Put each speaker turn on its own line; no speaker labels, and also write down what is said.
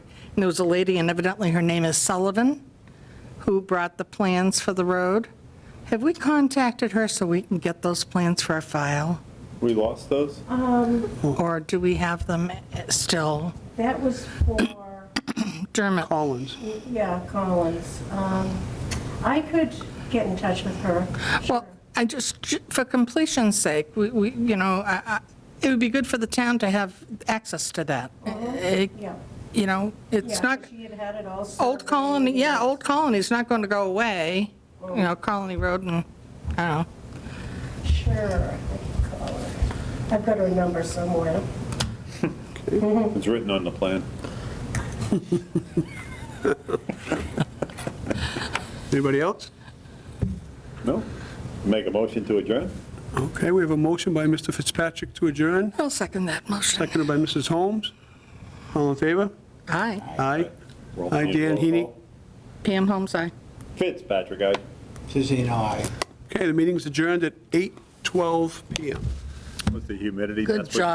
there was a lady, and evidently her name is Sullivan, who brought the plans for the road. Have we contacted her so we can get those plans for our file?
We lost those?
Or do we have them still?
That was for,
Dermot?
Collins.
yeah, Collins. Um, I could get in touch with her.
Well, I just, for completion's sake, we, we, you know, I- I- it would be good for the town to have access to that. It-
Uh-huh. Yeah.
You know, it's
Yeah,
not,
She had had it all.
Old
surveyed.
Colony, yeah, Old Colony's not going to go away,
Oh.
you know, Colony Road and, I don't know.
Sure, I can call her. I've got her number somewhere.
It's written on the plan.
Anybody else?
No? Make a motion to adjourn?
Okay, we have a motion by Mr. Fitzpatrick to adjourn,
I'll second that motion.
seconded by Mrs. Holmes. All in favor?
Aye.
Aye.
Roll
Aye,
call,
Dan
roll
Heaney.
call.
Pam Holmes, aye.
Fitzpatrick, aye.
Suzanne, aye.
Okay, the meeting's adjourned at 8:12 PM.
What's the humidity?
Good
That's what-
job.